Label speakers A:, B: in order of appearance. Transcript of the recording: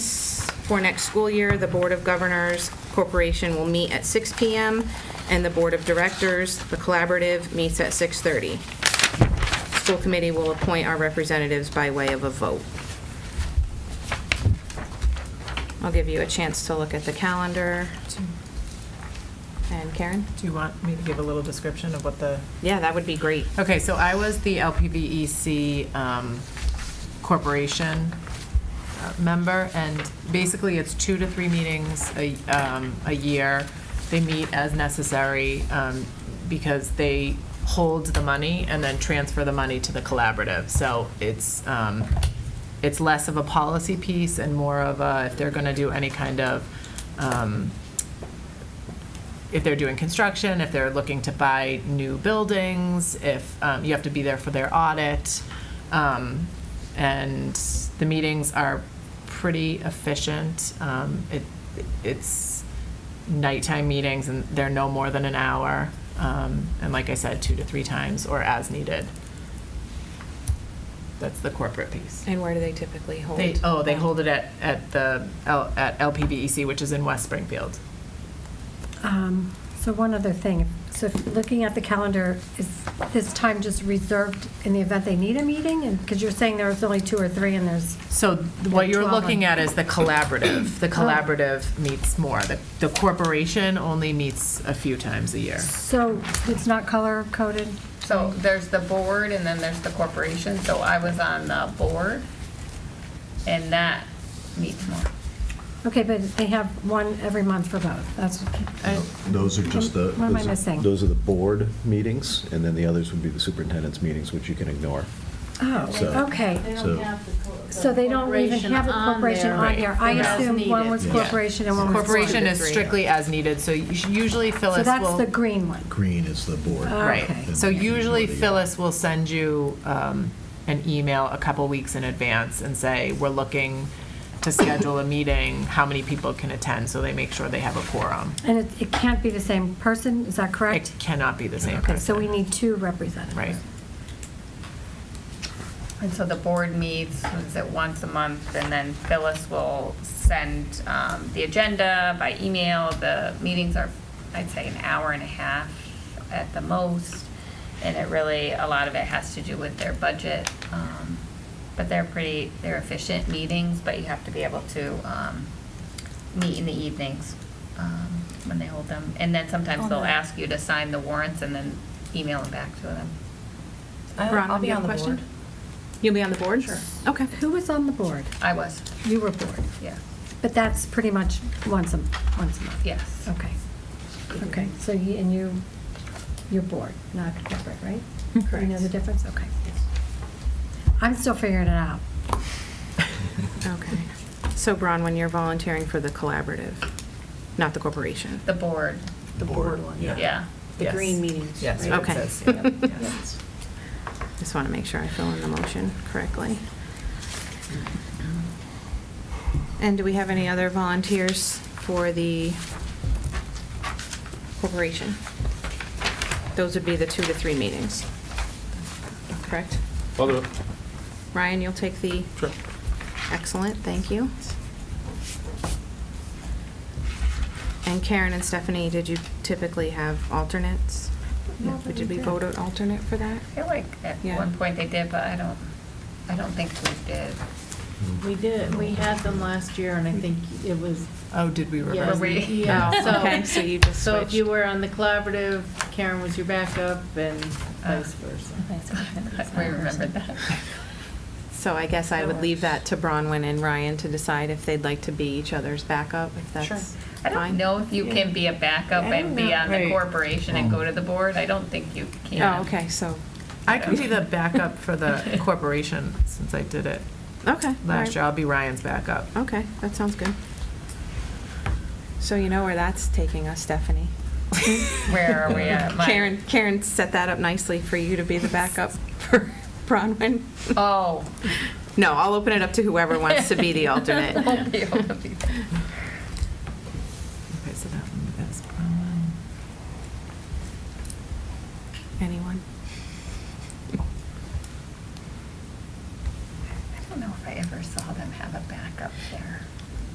A: For next school year, the Board of Governors Corporation will meet at 6 PM, and the Board of Directors, the Collaborative, meets at 6:30. School Committee will appoint our representatives by way of a vote. I'll give you a chance to look at the calendar. And Karen?
B: Do you want me to give a little description of what the
A: Yeah, that would be great.
B: Okay, so I was the LPVEC E um, Corporation uh, member, and basically, it's two to three meetings a, um, a year. They meet as necessary um, because they hold the money and then transfer the money to the collaborative. So it's, um, it's less of a policy piece and more of a, if they're going to do any kind of um, if they're doing construction, if they're looking to buy new buildings, if um, you have to be there for their audit. Um, And the meetings are pretty efficient. Um, it- It's nighttime meetings, and they're no more than an hour. Um, And like I said, two to three times, or as needed. That's the corporate piece.
A: And where do they typically hold?
B: They, oh, they hold it at, at the, L- at LPBEC, which is in West Springfield.
C: Um, So one other thing, so if looking at the calendar, is this time just reserved in the event they need a meeting? And, because you're saying there's only two or three and there's,
B: So th- what you're
C: 12
B: looking at is the collaborative.
C: Oh.
B: The collaborative meets more. The the corporation only meets a few times a year.
C: so it's not color coded?
D: So there's the board and then there's the corporation, so I was on the board, and that needs more.
C: Okay, but they have one every month for both, that's,
E: Those are just the.
C: What am I
E: those are-
C: missing?
E: Those are the board meetings, and then the others would be the superintendent's meetings, which you can ignore.
C: oh,
E: So-
C: okay.
F: They don't
E: So-
F: have the co- the
C: So they don't even have a corporation on
B: Right.
C: here. I
B: Right.
C: assume one was
E: Yeah.
C: corporation and one was.
B: Corporation is
A: three.
B: strictly as needed, so you sh- usually
C: So
B: Phyllis
C: that's the
B: will.
C: green one.
E: Green is the board.
C: Oh,
B: Right.
C: okay.
B: So
E: And
B: usually
E: usually-
B: Phyllis will send you um, an email a couple weeks in advance and say, we're looking to schedule a meeting, how many people can attend, so they make sure they have a quorum.
C: And it, it can't be the same person, is that
B: It
C: correct?
B: cannot be the same
C: Okay, so we
B: person.
C: need two representatives.
B: Right.
D: And so the board meets, what is it, once a month, and then Phyllis will send um, the agenda by email. The meetings are, I'd say, an hour and a half at the most, and it really, a lot of it has to do with their budget. um, But they're pretty, they're efficient meetings, but you have to be able to um, meet in the evenings um, when they hold them. And then sometimes they'll ask you to sign the warrants and then email them back to them.
A: Ron, uh, I'll be on the board. You'll be on the board? Sure. Okay.
C: Who was on the board?
D: I was,
C: You were board.
D: yeah,
C: But that's pretty much once a, once a month?
D: yes.
C: Okay. Okay, so you, and you, you're board, not corporate, right? You know the
A: Correct.
C: difference? Okay. I'm still figuring it out.
A: Okay. So Bron, when you're volunteering for the collaborative, not the corporation?
D: The board,
E: The board one,
D: yeah.
A: The
B: Yes.
A: green meetings,
B: Yes.
A: right?
B: it
A: Okay.
B: says, yeah, yes.
A: Just want to make sure I fill in the motion correctly. And do we have any other volunteers for the corporation? Those would be the two to three meetings. Correct?
G: I'll do it.
A: Ryan, you'll take the?
G: Sure.
A: Excellent, thank you. And Karen and Stephanie, did you typically have alternates?
C: No, but
A: Did
C: we
A: we
C: did.
A: vote an alternate for that?
D: I feel like at
A: Yeah.
D: one point they did, but I don't, I don't think we did.
F: We did, we had them last year, and I think it was.
B: Oh, did we
F: yeah,
B: reverse?
D: Were we-
F: Yeah, so.
A: Okay, so you just
F: So if you
A: switched.
F: were on the collaborative, Karen was your backup, and vice versa.
D: Uh, We remembered that.
A: So I guess I would leave that to Bronwyn and Ryan to decide if they'd like to be each other's backup, if that's
D: I
A: fine.
D: don't know if you can be a backup
F: I
D: and
F: don't
D: be
F: know.
D: on the
F: Right.
D: corporation and go to the board. I don't think you can.
A: Oh, okay, so,
B: I can be the backup for the corporation, since I did it
A: okay. all right.
B: last year. I'll be Ryan's backup.
A: Okay, that sounds good. So you know where that's taking us, Stephanie.
D: Where are we at? My-
A: Karen, Karen set that up nicely for you to be the backup for Bronwyn.
D: Oh.
A: No, I'll open it up to whoever wants to be the alternate.
D: Won't be able to be.
B: Okay, so that one is Brian.
A: Anyone?
D: I don't know if I ever saw them have a backup there.